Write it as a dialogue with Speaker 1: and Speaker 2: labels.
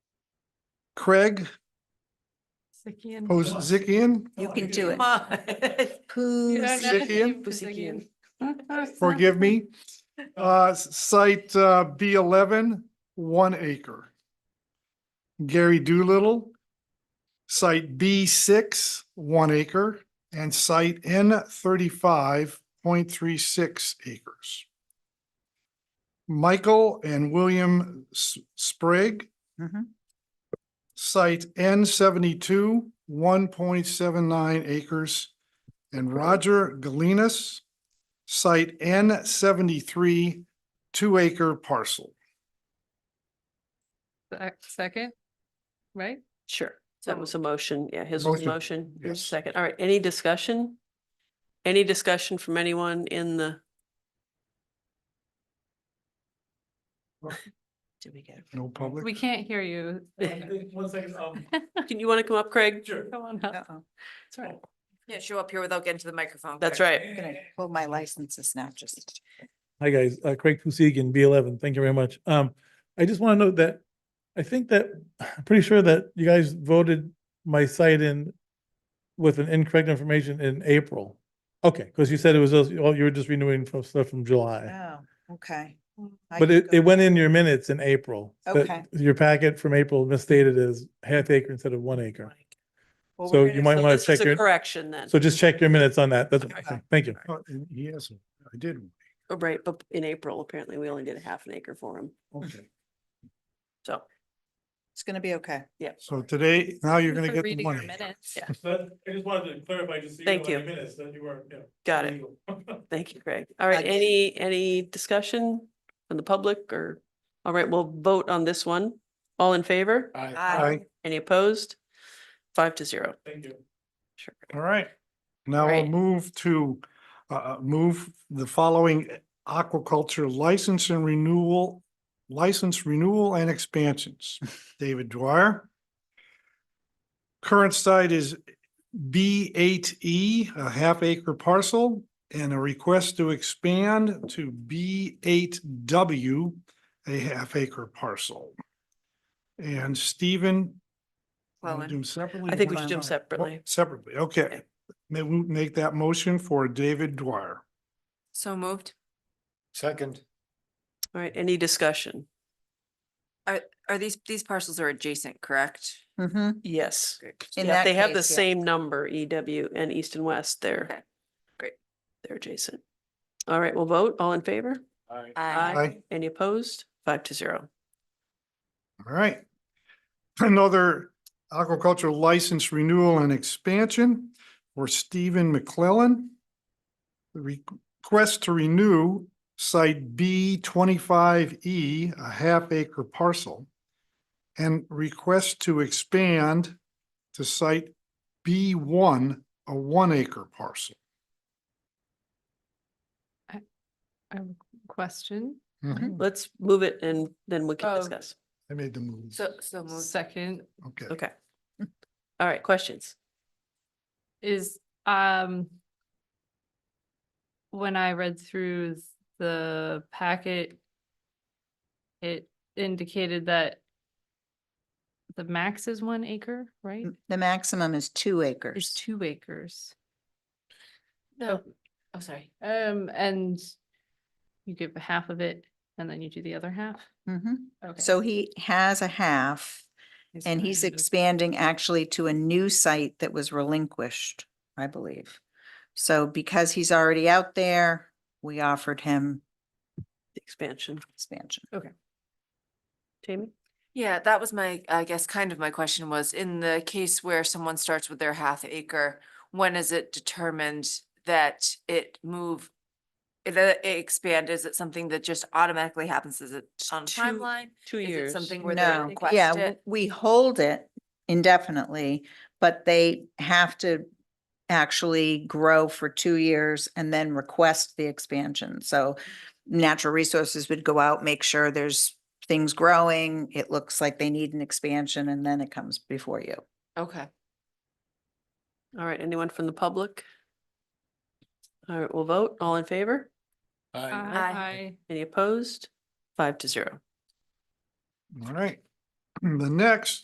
Speaker 1: Craig oh, Ozizikian,
Speaker 2: You can do it.
Speaker 1: Zikian?
Speaker 2: Pusikian.
Speaker 1: forgive me. Uh, site uh, B eleven, one acre. Gary Doolittle, site B six, one acre, and site N thirty-five point three six acres. Michael and William S- Sprague, site N seventy-two, one point seven nine acres, and Roger Galinas, site N seventy-three, two-acre parcel.
Speaker 3: Sec- Second, right?
Speaker 2: Sure. That was a motion. Yeah, his was a motion. Your
Speaker 1: yes.
Speaker 2: Second. All right. Any discussion? Any discussion from anyone in the? Did we get?
Speaker 1: No public.
Speaker 3: We can't hear you. Go
Speaker 4: One second, um,
Speaker 2: Can you want to come up, Craig?
Speaker 4: sure.
Speaker 3: on up. It's all right.
Speaker 5: Can't show up here without getting to the microphone.
Speaker 2: That's
Speaker 5: Craig.
Speaker 2: right.
Speaker 5: Well, my license is now just.
Speaker 4: Hi, guys. Uh, Craig Pusigan, B eleven. Thank you very much. Um, I just want to note that I think that, I'm pretty sure that you guys voted my site in with an incorrect information in April. Okay, because you said it was, those- oh, you were just renewing from stuff from July.
Speaker 5: Oh, okay. I
Speaker 4: But
Speaker 5: can
Speaker 4: it,
Speaker 5: go-
Speaker 4: it went in your minutes in April. that
Speaker 5: Okay.
Speaker 4: Your packet from April misstated as half acre instead of one acre.
Speaker 5: well, we're
Speaker 4: So
Speaker 5: gonna-
Speaker 4: you might
Speaker 2: So
Speaker 4: want
Speaker 2: this
Speaker 4: to
Speaker 2: is
Speaker 4: check
Speaker 2: a
Speaker 4: your,
Speaker 2: Correction then.
Speaker 4: so just check your minutes on that. That's, what I'm
Speaker 2: Okay.
Speaker 4: saying. thank you.
Speaker 1: Oh, and He has, I did.
Speaker 2: Oh, Right, but in April, apparently we only did a half an acre for him.
Speaker 1: Okay.
Speaker 2: So,
Speaker 5: It's gonna be okay.
Speaker 1: So today, now you're gonna
Speaker 3: For
Speaker 1: get the
Speaker 3: reading your
Speaker 1: money.
Speaker 3: minutes.
Speaker 2: Yeah.
Speaker 4: But I just wanted to clarify, just so you know,
Speaker 2: Thank
Speaker 4: on your
Speaker 2: you.
Speaker 4: minutes that you were, yeah.
Speaker 2: got it.
Speaker 4: legal.
Speaker 2: Thank you, Craig. All right,
Speaker 5: Okay.
Speaker 2: any, any discussion from the public or? All right, we'll vote on this one. All in favor?
Speaker 5: Aye.
Speaker 1: Aye.
Speaker 2: Any opposed? Five to zero.
Speaker 4: Thank you.
Speaker 2: Sure.
Speaker 1: All right. Now I'll
Speaker 2: Right.
Speaker 1: move to, uh, uh, move the following aquaculture license and renewal, license renewal and expansions. David Dwyer. Current site is B eight E, a half acre parcel, and a request to expand to B eight W, a half acre parcel. And Stephen. wanna
Speaker 5: Well,
Speaker 1: do 'em separately
Speaker 2: I
Speaker 1: or
Speaker 2: think we
Speaker 1: one
Speaker 2: should
Speaker 1: at
Speaker 2: do
Speaker 1: a
Speaker 2: them
Speaker 1: time?
Speaker 2: separately.
Speaker 1: Well, Oh, Separately, okay. May we make that motion for David Dwyer?
Speaker 5: So moved.
Speaker 1: Second.
Speaker 2: All right, any discussion?
Speaker 5: Are these, these parcels are adjacent, correct?
Speaker 6: Mm-hmm.
Speaker 2: Yes.
Speaker 5: In
Speaker 2: Yeah,
Speaker 5: that
Speaker 2: They have the
Speaker 5: case, yeah.
Speaker 2: same number, EW and East and West there.
Speaker 5: Okay, great.
Speaker 2: They're adjacent. All right, we'll vote. All in favor?
Speaker 1: Aye.
Speaker 2: Any opposed? Five to zero.
Speaker 1: All right. Another aquaculture license renewal and expansion for Stephen McClellan. The Request to renew site B twenty-five E, a half acre parcel. And request to expand to site B one, a one acre parcel.
Speaker 3: I have a Question,
Speaker 7: Hmm.
Speaker 2: Let's move it and then we can
Speaker 3: Oh.
Speaker 2: discuss.
Speaker 1: I made the move.
Speaker 5: So, so moved.
Speaker 3: second
Speaker 1: Okay.
Speaker 2: Okay. All right, questions?
Speaker 3: is, um, when I read through the packet, it indicated that the max is one acre, right?
Speaker 6: The maximum is two
Speaker 3: There's
Speaker 6: acres.
Speaker 3: two acres. No, oh, sorry. Um, and you give half of it and then you do the other half?
Speaker 6: Mhm.
Speaker 3: Okay.
Speaker 6: So he has a half and he's expanding actually to a new site that was relinquished, I believe. So because he's already out there, we offered him
Speaker 2: Expansion.
Speaker 6: expansion.
Speaker 2: Jamie?
Speaker 7: Yeah, that was my, I guess, kind of my question was, in the case where someone starts with their half acre, when is it determined that it move? That it expand, is it something that just automatically happens? Is it on a
Speaker 2: two-
Speaker 7: timeline?
Speaker 2: Two
Speaker 7: Is it
Speaker 2: years.
Speaker 7: something where they
Speaker 6: No,
Speaker 7: request
Speaker 6: yeah, w-
Speaker 7: it?
Speaker 6: we hold it indefinitely, but they have to actually grow for two years and then request the expansion. So natural resources would go out, make sure there's things growing, it looks like they need an expansion, and then it comes before you.
Speaker 7: Okay.
Speaker 2: All right, anyone from the public? All right, we'll vote. All in favor?
Speaker 3: Aye.
Speaker 2: Any opposed? Five to zero.
Speaker 1: All right. The next